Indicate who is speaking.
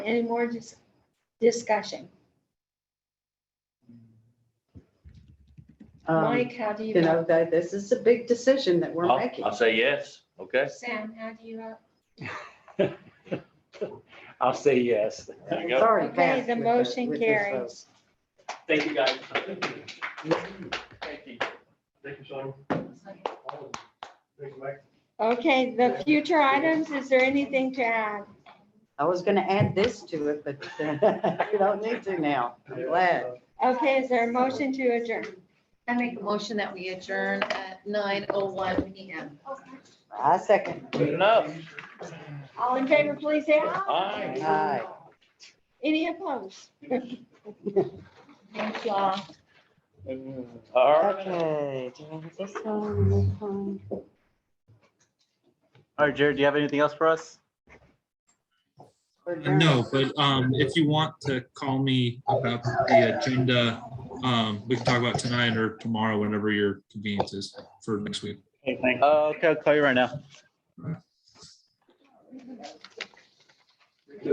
Speaker 1: Any more dis- discussion?
Speaker 2: Um,
Speaker 1: Mike, how do you?
Speaker 2: You know, that this is a big decision that we're
Speaker 3: I'll,
Speaker 2: making.
Speaker 3: I'll say yes, okay?
Speaker 1: vote? Sam, how do you? vote?
Speaker 4: I'll say yes.
Speaker 3: There you
Speaker 2: It's
Speaker 3: go.
Speaker 2: already
Speaker 1: Okay,
Speaker 2: passed
Speaker 1: the
Speaker 2: with
Speaker 1: motion
Speaker 2: with this
Speaker 1: carries.
Speaker 5: Thank you, guys. Thank you.
Speaker 6: Thank you, Sean. Thanks, Mike.
Speaker 1: Okay, the future items, is there anything to add?
Speaker 2: vote. I was gonna add this to it, but uh, you don't need to now. I'm glad.
Speaker 1: Okay, is there a motion to adjourn?
Speaker 7: I make a motion that we adjourn at nine oh one P M.
Speaker 2: I second.
Speaker 3: Good enough.
Speaker 1: All in favor, please say aye.
Speaker 3: Aye.
Speaker 2: Aye.
Speaker 1: Any opposed?
Speaker 7: Thank you all.
Speaker 3: All right.
Speaker 2: Okay. do I have this one, this one?
Speaker 8: All right, Jared, do you have anything else for us?
Speaker 2: Or
Speaker 9: Uh, No, but um, if you want to call me about the agenda, um, we can talk about tonight or tomorrow, whenever your convenience is for next week.
Speaker 4: Uh,
Speaker 8: Okay, thanks. Okay, I'll call you right now.